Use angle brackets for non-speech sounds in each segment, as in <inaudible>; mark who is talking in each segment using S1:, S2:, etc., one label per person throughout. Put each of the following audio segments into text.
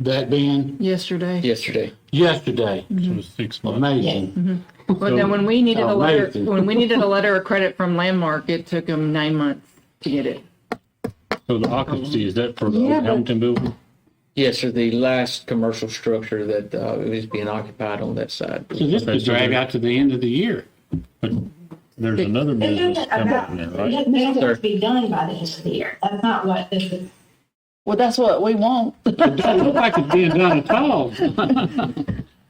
S1: that being
S2: yesterday.
S3: yesterday.
S1: yesterday.
S4: So it's six months.
S1: Amazing.
S2: But now, when we needed a letter,
S1: Amazing.
S2: when we needed a letter of credit from Landmark, it took them nine months to get it.
S4: So the occupancy, is that for the
S2: Yeah,
S4: old
S2: but-
S4: Hamilton building?
S3: Yes, sir, the last commercial structure that uh, is being occupied on that side.
S1: So this could
S4: Okay, so
S1: drag
S4: there-
S1: out to the end of the year.
S4: But there's another
S5: It
S4: business
S5: doesn't
S4: coming up now,
S5: amount,
S4: right?
S5: it doesn't have to be done by the end of the year. That's not what this is.
S6: Well, that's what we want.
S1: It doesn't look like it's being done at all.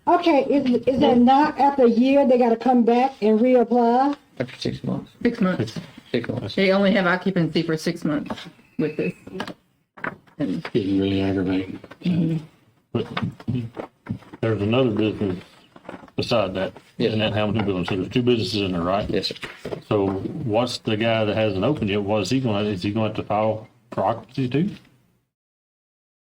S7: Okay, is, is that not after a year, they gotta come back and reapply?
S3: After six months,
S2: Six months.
S3: six months.
S2: They only have occupancy for six months with this. And
S1: Getting really aggravating.
S4: But There's another business beside that, in that Hamilton building. So there's two businesses in there, right?
S3: Yes, sir.
S4: So what's the guy that hasn't opened yet? What is he going, to is he going to file for occupancy too?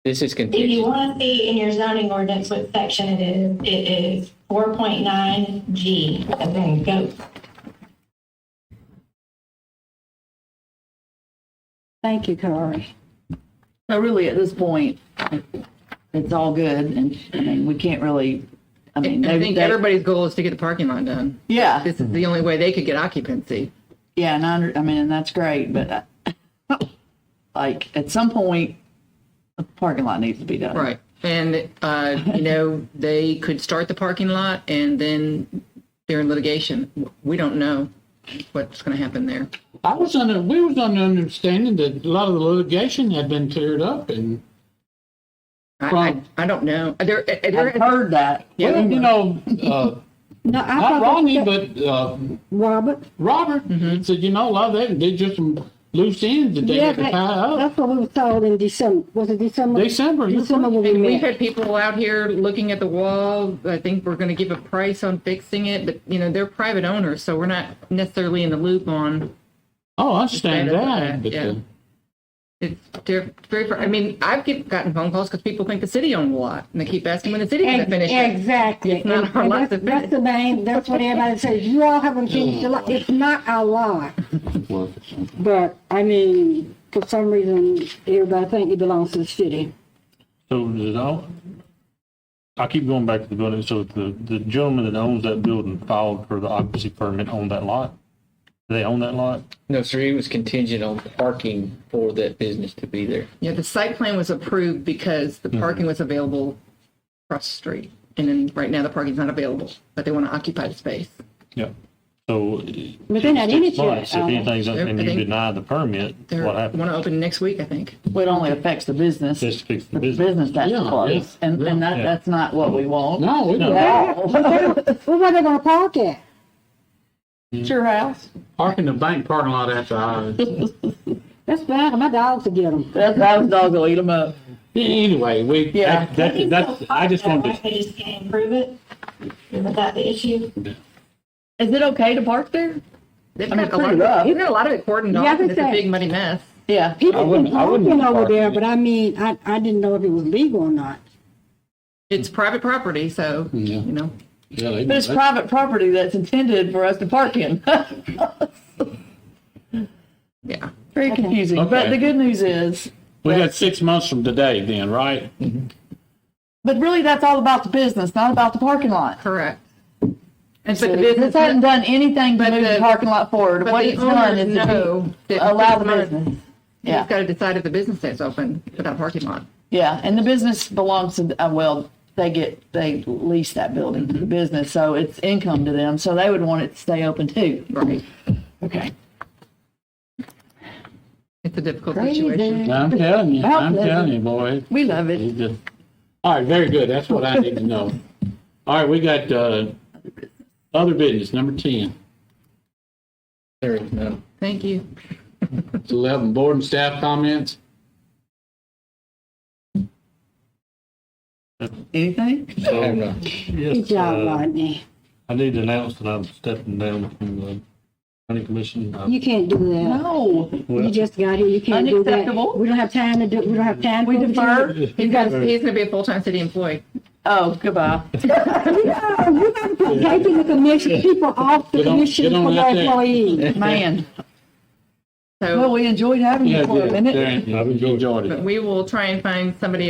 S3: This is
S5: If you
S3: contingent.
S5: want to see in your zoning ordinance what section it is, it is four point nine G, and then go.
S6: Thank you, Kari. So really, at this point, it's all good, and, I mean, we can't really, I mean,
S2: I
S6: they, Mm-hmm.
S2: think
S6: they,
S2: everybody's goal is to get the parking lot done.
S6: yeah,
S2: This is the only way they could get occupancy.
S6: yeah, and I, under- I mean, and that's great, but <laughs> uh, like, at some point, the parking lot needs to be done.
S2: Right. And, uh, you know, they could start the parking lot and then they're in litigation. We don't know what's going to happen there.
S1: I was under, we was under understanding that a lot of the litigation had been cleared up and,
S2: I,
S1: Right.
S2: I, I don't know. There, there,
S6: I've heard that.
S1: well, you know, uh,
S7: No, I
S1: not
S7: thought,
S1: Ronnie,
S7: that-
S1: but, uh,
S7: Robert,
S1: Robert said, you know, a lot of that, they just some loose ends that they
S7: yeah,
S1: had to
S7: that- Oh,
S1: tie up.
S7: that's what we were told in December, was it December?
S1: December, you're
S7: December when we
S2: And we've had
S7: met.
S2: people out here looking at the wall. I think we're going to give a price on fixing it, but you know, they're private owners, so we're not necessarily in the loop on.
S1: Oh, I understand
S2: Understand
S1: that,
S2: that,
S1: but,
S2: yeah.
S1: uh,
S2: It's they're very, I mean, I've get, gotten phone calls because people think the city owns a lot and they keep asking when the city's going to
S7: Ex-
S2: finish it.
S7: Exactly.
S2: It's not
S7: And-
S2: our
S7: and
S2: lot
S7: that's-
S2: to
S7: That's the main, that's what everybody says, you all haven't finished the lot, it's not our lot.
S1: well, it's something.
S7: But, I mean, for some reason, everybody think it belongs to the city.
S4: So does all, I keep going back to the building, so the, the gentleman that owns that building filed for the occupancy permit on that lot? They own that lot?
S3: No, sir, it was contingent on parking for that business to be there.
S2: Yeah, the site plan was approved because
S6: Mm-hmm.
S2: the parking was available across the street. And then right now the parking's not available, but they want to occupy the space.
S4: Yep. So.
S7: But they're not in it
S4: six months, If
S7: yet, uh,
S4: anything's, and you
S2: everything-
S4: deny the permit,
S2: They
S4: what
S2: want
S4: happens?
S2: to open next week, I think.
S6: Well, it only affects the business,
S4: Just fix the
S6: the
S4: business.
S6: business that's
S1: Yeah,
S6: closed,
S1: yeah,
S6: and, and that,
S4: yeah.
S6: that's not what we want.
S1: No, we
S4: No.
S1: were
S7: Well, <laughs> where they gonna park at?
S6: It's your house.
S1: parking the bank parking lot after hours.
S7: That's bad, my dogs will get them.
S6: That's, those dogs will eat them up.
S1: <laughs> Anyway, we,
S6: Yeah.
S1: that, that, that's, I just wanted to
S5: They just can't improve it. Isn't that the issue?
S6: Is it okay to park there?
S2: They've
S6: I mean,
S2: got a lot
S6: clean it up.
S2: of, they've got a lot of it cordoned
S7: Yeah,
S2: off and
S7: that's
S2: it's a
S7: it.
S2: big muddy mess.
S6: Yeah.
S1: I
S7: People
S1: wouldn't-
S7: been
S1: I wouldn't
S7: talking over
S1: park
S7: there,
S1: it.
S7: but I mean, I, I didn't know if it was legal or not.
S2: It's private property, so,
S1: Yeah.
S2: you know.
S1: Yeah, they-
S6: But it's private property that's intended for us to park in. <laughs>
S2: Yeah.
S6: Very confusing. But
S1: Okay.
S6: the good news is,
S1: we got six months from today then, right?
S7: Mm-hmm.
S6: but really that's all about the business, not about the parking lot.
S2: Correct. And
S6: The
S2: but the
S6: business
S2: business,
S6: hasn't done anything but
S2: but
S6: move the
S2: the-
S6: parking lot forward.
S2: but
S6: What
S2: the
S6: it's done
S2: owners
S6: is to
S2: know
S6: be-
S2: that
S6: allow the
S2: six months-
S6: business.
S2: you've
S6: Yeah,
S2: got to decide if the business stays open without a parking lot.
S6: yeah. And the business belongs to, uh, well, they get, they lease that building to the business, so it's income to them. So they would want it to stay open too.
S2: Right.
S6: Okay.
S2: It's a difficult situation.
S1: I'm telling you, I'm telling you, boy.
S6: We love it.
S1: It's just- All right, very good. That's what I need to know. All right, we got, uh, other business, number ten.
S3: There is none.
S2: Thank you.
S1: It's eleven, board and staff comments.
S6: Anything?
S3: I have none.
S7: Good
S4: Yes,
S7: job,
S4: uh,
S7: Rodney.
S4: I need to announce that I'm stepping down from the county commission. I-
S7: You can't do that.
S6: No.
S7: You just got here, you can't do that.
S6: Unacceptable.
S7: We don't have time to do, we don't have time.
S6: We
S7: for it.
S6: defer.
S2: He's got, he's going to be a full-time city employee.
S6: Oh, goodbye.
S7: No, you gotta put taking the commission, people off the
S1: Get on-
S7: commission
S1: get on
S7: for
S1: out
S7: their
S1: there.
S7: employees.
S6: Man.
S2: So.
S6: Well, we enjoyed having you
S1: Yeah,
S6: for a
S1: yeah,
S6: minute.
S1: Darren, I've enjoyed it.
S2: But we will try and find somebody